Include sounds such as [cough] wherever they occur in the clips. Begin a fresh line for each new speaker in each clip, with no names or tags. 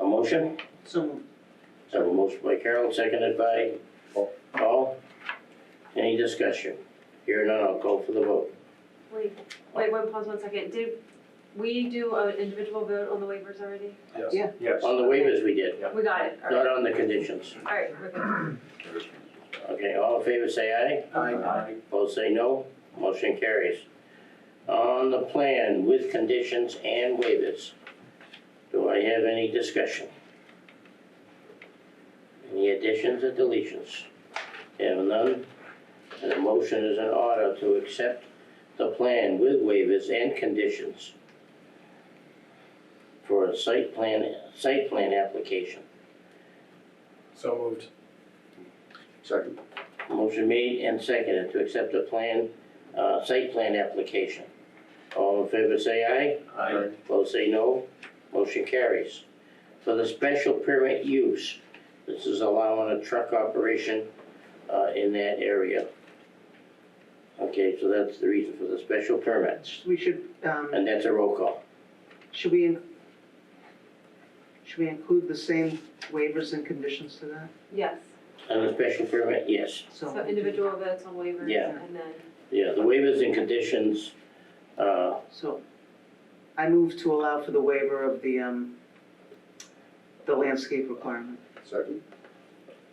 motion?
So moved.
I have a motion by Carol, seconded by Paul. Any discussion? Here none, I'll call for the vote.
Wait, wait, one pause one second. Did we do an individual vote on the waivers already?
Yeah.
Yes.
On the waivers we did,
We got it. All
not
right.
on the conditions.
All right, we're good.
Okay, all in favor say aye,
Aye.
opposed say no, motion carries. On the plan with conditions and waivers, do I have any discussion? Any additions or deletions? Have none, and a motion is in order to accept the plan with waivers and conditions for a site plan, site plan application.
So moved.
Second.
Motion made and seconded to accept the plan, uh, site plan application. All in favor say aye,
Aye.
opposed say no, motion carries. For the special permit use, this is allowing a truck operation, uh, in that area. Okay, so that's the reason for the special permits,
We should, um,
and that's a roll call.
should we, in- should we include the same waivers and conditions to that?
Yes,
On the special permit, yes,
so individual votes on waivers
Yeah.
and then,
yeah, the waivers and conditions, uh,
So I move to allow for the waiver of the, um, the landscape requirement.
[laughs]
Second.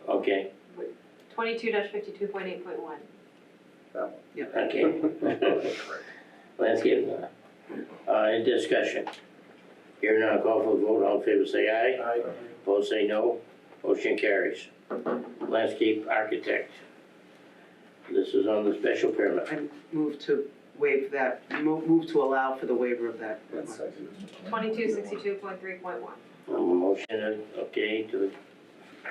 okay.
twenty-two fifty-two point eight point one.
Okay.
[laughs]
Landscape, uh, in discussion. Here now, call for the vote, all in favor say aye,
Aye.
opposed say no, motion carries. Landscape architect. This is on the special permit.
I move to waive that, move, move to allow for the waiver of that. requirement.
Twenty-two sixty-two point three point one.
A Motion, uh, okay, to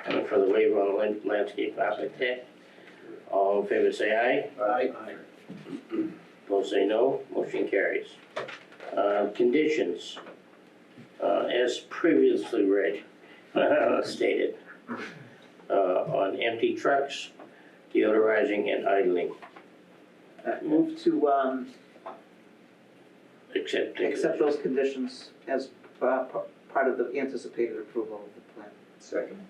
the, for the waiver on land- landscape architect. All in favor say aye.
Aye.
Opposed say no, motion carries. Uh, Conditions, uh, as previously read, [laughs] stated, uh, on empty trucks, deodorizing and idling,
Uh, Move to, um,
except.
accept those conditions as, uh, p- part of the anticipated approval of the plan.
Second.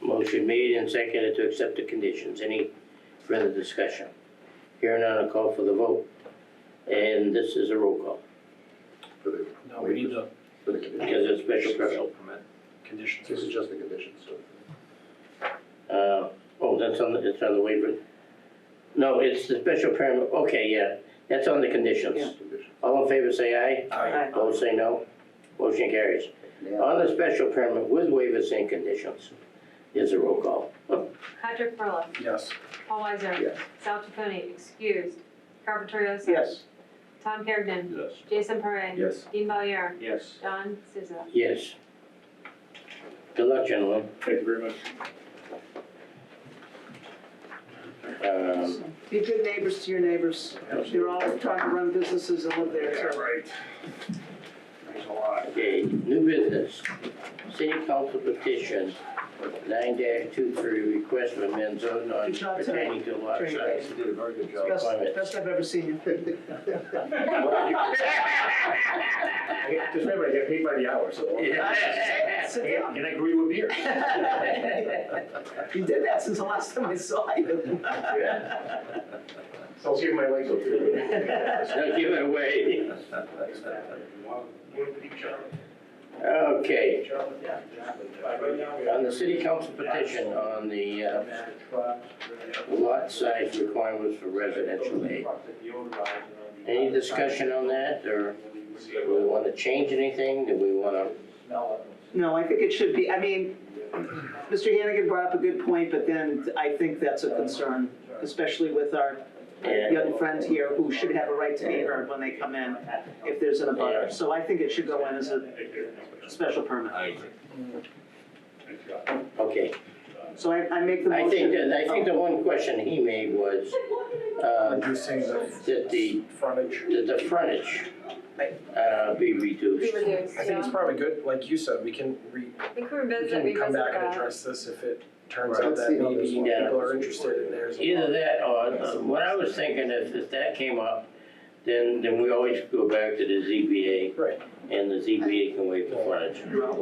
Motion made and seconded to accept the conditions. Any further discussion? Hearing none, I'll call for the vote. And this is a roll call,
For the,
No, we need the
for the
because
conditions.
it's special permit.
permit conditions.
This is just the conditions, so.
Uh, oh, that's on, the it's on the waiver. No, it's the special permit, okay, yeah, that's on the
Yeah.
conditions.
Conditions.
All in favor, say aye.
Aye.
Opposed, say no. Motion carries. On the special permit with waivers and conditions is a roll call.
Patrick Perla,
Yes.
Paul Weiser,
Yes.
Sal Chaconi, excused. Carver Torioso.
Yes,
Tom Kergnen,
Yes.
Jason Parra.
Yes.
Dean Valier,
Yes.
John Siza.
Yes. Good luck, gentlemen.
Thank you very much.
Um,
be good neighbors to your neighbors. They're all trying to run businesses and live there, so.
right. Thanks a lot.
Okay, new business. City Council petition nine two three, request for amend zone on
Good job, Terry.
pertaining to lot
Terry.
size.
You did a very good job.
Best, best I've ever seen you.
Just remember, I get paid by the hour, so.
Sit down.
And I agree with beer.
[laughs] You did that since the last time I saw you.
So I'll see if my legs will do.
Now give it away. Okay, on the city council petition on the uh, lot size requirements for residential aid. Any discussion on that, or do we want to change anything, do we want to,
No, I think it should be, I mean, Mr. Hannigan brought up a good point, but then I think that's a concern, especially with our
yeah,
young friend here who should have a right to be heard when they come in if there's an abutter. So I think it should go in as a special permit.
okay.
So I, I make the motion.
I think, that I think the one question he made was, uh,
Reducing the
that the,
frontage.
that the frontage uh, be
Be
reduced.
reduced,
I think
yeah.
it's probably good, like you said, we can re,
I think we're
we
revisit,
can come back and
revisit that.
address this if it turns
Right.
out
Let's
that
see how
maybe
this one-
Yeah.
people are interested in theirs.
Either that, or, uh, what I was thinking, if, if that came up, then, then we always go back to the ZBA,
Right.
and the ZBA can waive the frontage.